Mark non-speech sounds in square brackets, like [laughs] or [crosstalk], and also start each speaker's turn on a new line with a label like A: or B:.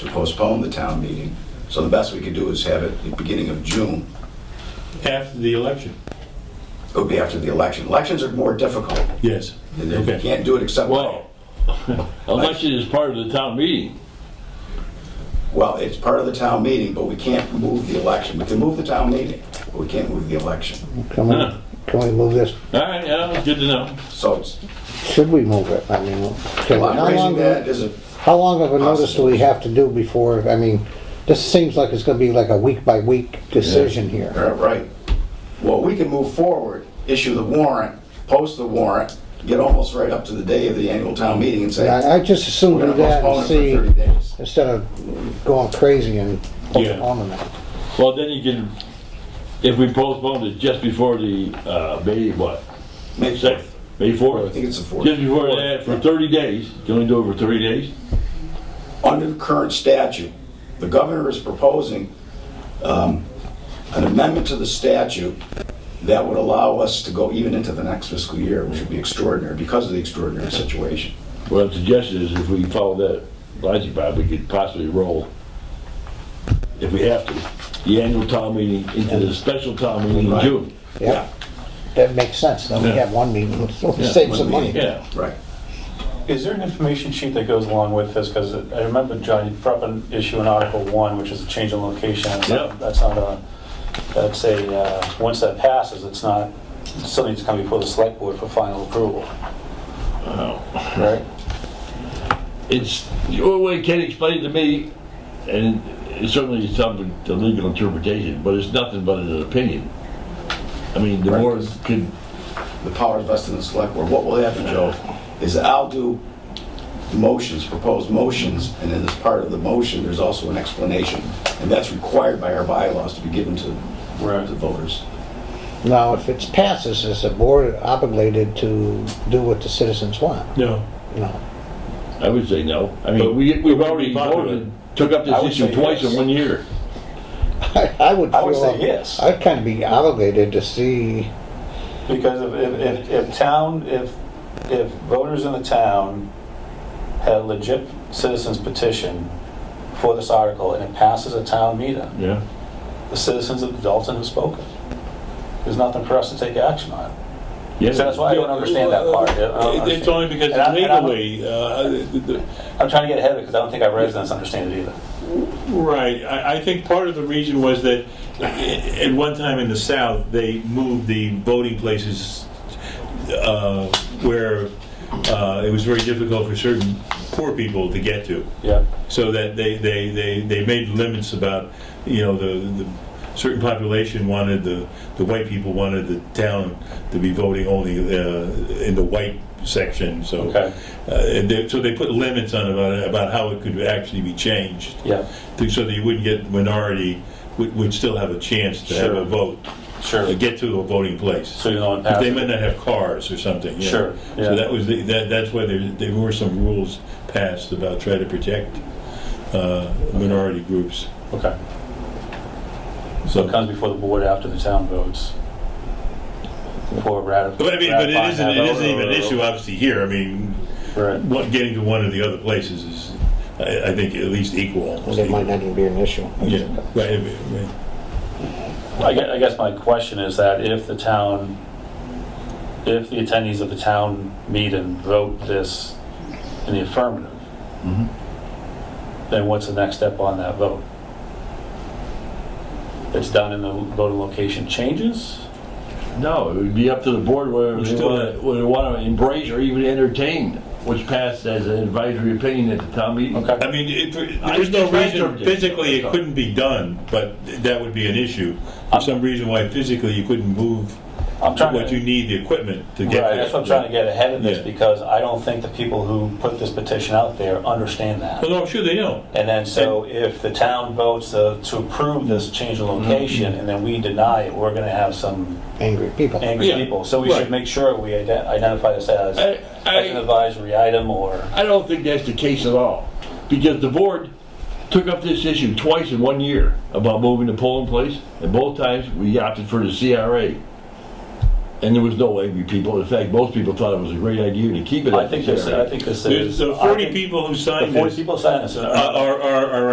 A: to postpone the town meeting. So the best we could do is have it the beginning of June.
B: After the election?
A: It would be after the election. Elections are more difficult.
B: Yes.
A: And You
B: Okay.
A: can't do it except,
C: Well, [laughs] election is part of the town meeting.
A: well, it's part of the town meeting, but we can't move the election. We can move the town meeting, but we can't move the election.
D: Can we, can we move this?
C: All right, yeah, it's good to know.
A: So it's,
D: Should we move it? I mean, can,
A: well,
D: how
A: I'm raising
D: long,
A: that as a,
D: how long of a notice do we have to do before, I mean, this seems like it's gonna be like a week by week decision here.
A: all right. Well, we can move forward, issue the warrant, post the warrant, get almost right up to the day of the annual town meeting and say,
D: I, I just assume
A: we're
D: do
A: gonna
D: that and
A: postpone it for 30
D: see,
A: days.
D: instead of going crazy and
B: Yeah.
D: postponing it.
C: Well, then you can, if we postponed it just before the, uh, May, what,
A: May
C: sixth,
A: 4th.
C: May
A: I think
C: fourth?
A: it's the 4th.
C: Just before that, for thirty days, you only do it for thirty days?
A: under the current statute, the governor is proposing um, an amendment to the statute that would allow us to go even into the next fiscal year, which would be extraordinary because of the extraordinary situation.
C: What I'm suggesting is if we follow that logic, Bob, we could possibly roll, if we have to, the annual town meeting into the special town meeting in
A: Right.
C: June.
D: Yeah, that makes sense, then we
C: Yeah.
D: have one meeting, [laughs] save some
A: one
D: money.
A: meeting.
C: Yeah.
A: Right.
E: Is there an information sheet that goes along with this? Because I remember, John, you brought up an issue in Article 1, which is a change in location. That's
C: Yeah.
E: not- That's not a, that's a, uh, once that passes, it's not, it still needs to come before the select board for final approval. Right?
C: It's, the only way Ken explained to me, and it's certainly something, the legal interpretation, but it's nothing but an opinion. I mean, the
A: Right.
C: board could,
A: The power is vested in the select board. What will happen, Joe, is I'll do motions, proposed motions, and then as part of the motion, there's also an explanation. And that's required by our bylaws to be given to
E: Right.
A: to voters.
D: Now, if it passes, is the board obligated to do what the citizens want?
B: No.
D: You know,
C: I would say no. I
B: But
C: mean, we,
B: we
C: we've
B: would
C: already
B: be popular.
C: voted, took up
E: I
C: this
E: would
C: issue
E: say
C: twice in
E: yes.
C: one year.
D: [laughs] I, I would
E: I would
D: feel
E: say
D: ob-
E: yes.
D: I'd kind of be obligated to see
E: Because if- if, if, if town, if, if voters in the town had a legit citizens petition for this article and it passes a town meeting,
C: Yeah.
E: the citizens of Dalton have spoken. There's nothing for us to take action on.
C: Yeah.
E: So that's why I don't understand that part. I
B: It-
E: don't
B: It's
E: understand.
B: only because
E: And I- and I don't-
B: legally, uh, the- the-
E: I'm trying to get ahead of it because I don't think our residents understand it either.
B: Right, I, I think part of the reason was that i- at one time in the South, they moved the voting places uh, where uh, it was very difficult for certain poor people to get to.
E: Yeah.
B: So that they, they, they, they made limits about, you know, the, the certain population wanted, the, the white people wanted the town to be voting only uh, in the white section, so.
E: Okay.
B: Uh, and they, so they put limits on about, about how it could actually be changed
E: Yeah.
B: to- so that you wouldn't get the minority, would, would still have a chance to have
E: Sure.
B: a vote,
E: Sure.
B: uh, get to a voting place.
E: So you know it
B: But They
E: passes.
B: might not have cars or something. yeah.
E: Sure,
B: So
E: yeah.
B: that was, the- that, that's why there, there were some rules passed about trying to protect uh, minority groups.
E: Okay. So it
B: So,
E: comes before the board after the town votes. Before ratifying.
B: but I mean, but it isn't, it isn't even an issue obviously here. I mean,
E: Right.
B: what, getting to one of the other places is, I, I think, at least equal. almost
D: Well, there might
B: equal.
D: not even be an issue.
B: Yeah, right, right.
E: I guess, I guess my question is that if the town, if the attendees of the town meet and vote this in the affirmative,
B: Mm-hmm.
E: then what's the next step on that vote? It's done and the voting location changes?
C: No, it would be up to the board whether
B: We're
C: they
B: still-
C: wanna- whether they want to embrace or even entertain what's passed as an advisory opinion at the town meeting.
E: Okay,
B: I mean, it,
C: I
B: there's no
C: tried to
B: reason
C: object.
B: physically it couldn't be done, but that would be an issue. For some reason why physically you couldn't move
E: I'm trying
B: what you
E: to,
B: need, the equipment to get there.
E: right, that's what I'm trying to get ahead of this
B: Yeah.
E: because I don't think the people who put this petition out there understand that.
B: Well, no, I'm sure they know.
E: And then, so if the town votes uh, to approve this change in location and then we deny it, we're going to have some
D: Angry people.
E: angry
C: Yeah,
E: people. So we
C: right.
E: should make sure we ident- identify this as
C: I- I-
E: as an advisory item or,
C: I don't think that's the case at all, because the board took up this issue twice in one year about moving the polling place, and both times we opted for the CRA. And there was no angry people. In fact, most people thought it was a great idea to keep it.
E: I
C: as a
E: think this,
C: charity.
E: I think this is.
B: There's uh,
E: I
B: 40
E: think
B: people who
E: The
B: signed
E: 40
B: this
E: people signed this.
B: uh, are, are, are